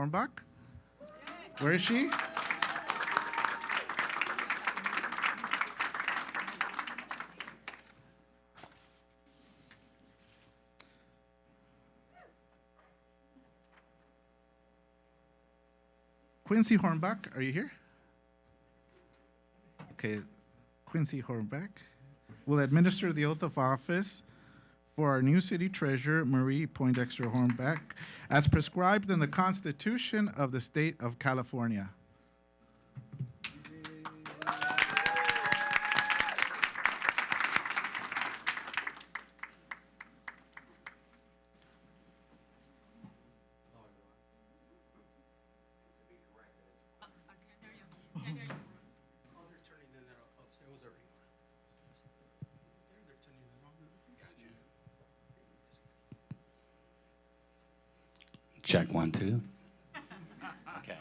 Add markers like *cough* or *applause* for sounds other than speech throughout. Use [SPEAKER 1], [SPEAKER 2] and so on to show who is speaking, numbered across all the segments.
[SPEAKER 1] Hornbach? Where is she? Quincy Hornbach, are you here? Okay, Quincy Hornbach will administer the oath of office for our new city treasurer, Marie Poindexter Hornbeck, as prescribed in the Constitution of the State of California.
[SPEAKER 2] They're turning in that upstairs, it was already on. They're, they're turning it on. Gotcha.
[SPEAKER 3] Check one, two. Okay.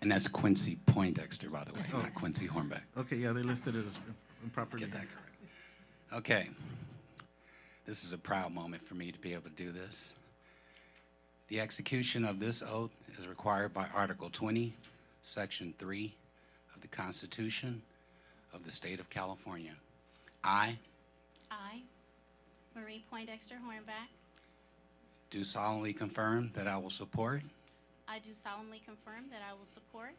[SPEAKER 3] And that's Quincy Poindexter, by the way, not Quincy Hornbeck.
[SPEAKER 1] Okay, yeah, they listed it as improperly.
[SPEAKER 3] Get that correct. Okay. This is a proud moment for me to be able to do this. The execution of this oath is required by Article 20, Section 3 of the Constitution of the State of California. I
[SPEAKER 4] I, Marie Poindexter Hornback,
[SPEAKER 3] do solemnly confirm that I will support
[SPEAKER 4] I do solemnly confirm that I will support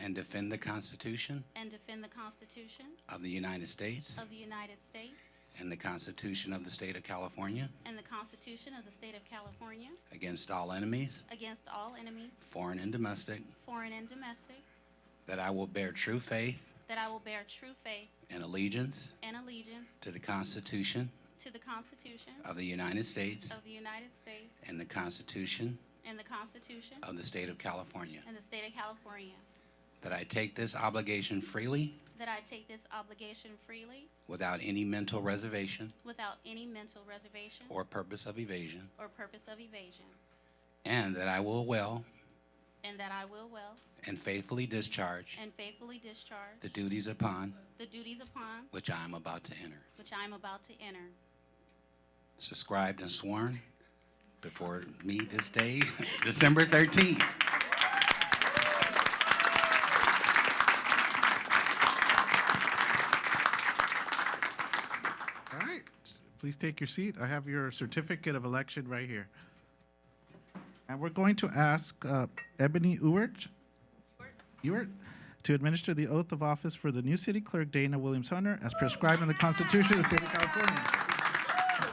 [SPEAKER 3] and defend the Constitution
[SPEAKER 4] and defend the Constitution
[SPEAKER 3] of the United States
[SPEAKER 4] of the United States
[SPEAKER 3] and the Constitution of the State of California
[SPEAKER 4] and the Constitution of the State of California
[SPEAKER 3] against all enemies,
[SPEAKER 4] against all enemies,
[SPEAKER 3] foreign and domestic,
[SPEAKER 4] foreign and domestic,
[SPEAKER 3] that I will bear true faith
[SPEAKER 4] that I will bear true faith
[SPEAKER 3] and allegiance
[SPEAKER 4] and allegiance
[SPEAKER 3] to the Constitution
[SPEAKER 4] to the Constitution
[SPEAKER 3] of the United States
[SPEAKER 4] of the United States
[SPEAKER 3] and the Constitution
[SPEAKER 4] and the Constitution
[SPEAKER 3] of the State of California,
[SPEAKER 4] and the State of California,
[SPEAKER 3] that I take this obligation freely
[SPEAKER 4] that I take this obligation freely
[SPEAKER 3] without any mental reservation
[SPEAKER 4] without any mental reservation
[SPEAKER 3] or purpose of evasion,
[SPEAKER 4] or purpose of evasion,
[SPEAKER 3] and that I will well
[SPEAKER 4] and that I will well
[SPEAKER 3] and faithfully discharge
[SPEAKER 4] and faithfully discharge
[SPEAKER 3] the duties upon
[SPEAKER 4] The duties upon
[SPEAKER 3] which I am about to enter.
[SPEAKER 4] which I am about to enter.
[SPEAKER 3] subscribed and sworn before me this day, *laughs* December 13th.
[SPEAKER 1] All right, please take your seat. I have your certificate of election right here. And we're going to ask uh, Ebony Ewert, Ewert to administer the oath of office for the new city clerk, Dana Williams Hunter, as prescribed in the Constitution of the State of California.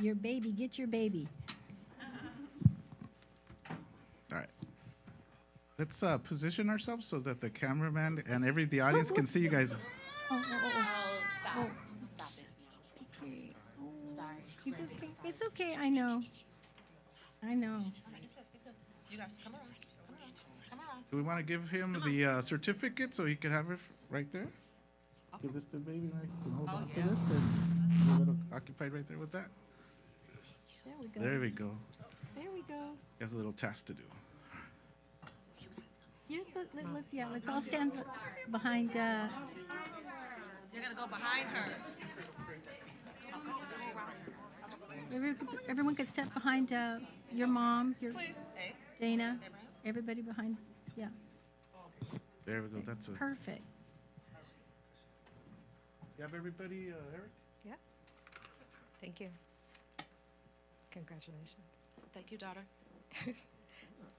[SPEAKER 5] Your baby, get your baby.
[SPEAKER 1] All right. Let's uh, position ourselves so that the cameraman and every the audience can see you guys.
[SPEAKER 5] It's okay. It's okay. I know. I know.
[SPEAKER 6] You guys, come on, come on, come on.
[SPEAKER 1] Do we want to give him the uh, certificate so he can have it f- right there? Give this to the baby. and I can hold on to
[SPEAKER 6] yeah.
[SPEAKER 1] this and be a little occupied right there with that.
[SPEAKER 5] There we go.
[SPEAKER 1] There we go.
[SPEAKER 5] There we go.
[SPEAKER 1] He has a little task to do.
[SPEAKER 5] You're supposed, let, let's, yeah, let's all stand be- behind, uh,
[SPEAKER 6] You're gonna go behind her.
[SPEAKER 5] every- everyone could step behind, uh, your mom, your
[SPEAKER 6] Please, hey,
[SPEAKER 5] Dana, everybody behind, yeah,
[SPEAKER 1] There we go. That's a.
[SPEAKER 5] perfect.
[SPEAKER 1] You have everybody, uh, Eric?
[SPEAKER 7] Yeah. Thank you. Congratulations.
[SPEAKER 6] thank you, daughter.
[SPEAKER 7] *laughs*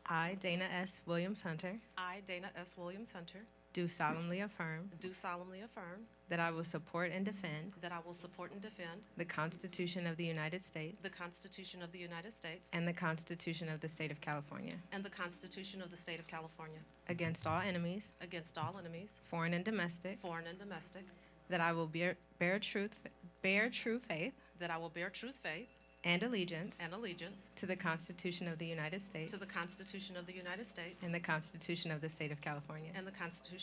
[SPEAKER 7] I, Dana S. Williams Hunter,
[SPEAKER 6] I, Dana S. Williams Hunter,
[SPEAKER 7] do solemnly affirm
[SPEAKER 6] do solemnly affirm
[SPEAKER 7] that I will support and defend
[SPEAKER 6] that I will support and defend
[SPEAKER 7] the Constitution of the United States
[SPEAKER 6] the Constitution of the United States
[SPEAKER 7] and the Constitution of the State of California
[SPEAKER 6] and the Constitution of the State of California
[SPEAKER 7] against all enemies,
[SPEAKER 6] against all enemies,
[SPEAKER 7] foreign and domestic,
[SPEAKER 6] foreign and domestic,
[SPEAKER 7] that I will bear, bear, truth, bear true faith
[SPEAKER 6] that I will bear true faith
[SPEAKER 7] and allegiance
[SPEAKER 6] and allegiance
[SPEAKER 7] to the Constitution of the United States
[SPEAKER 6] to the Constitution of the United States
[SPEAKER 7] and the Constitution of the State of California.
[SPEAKER 6] and the Constitution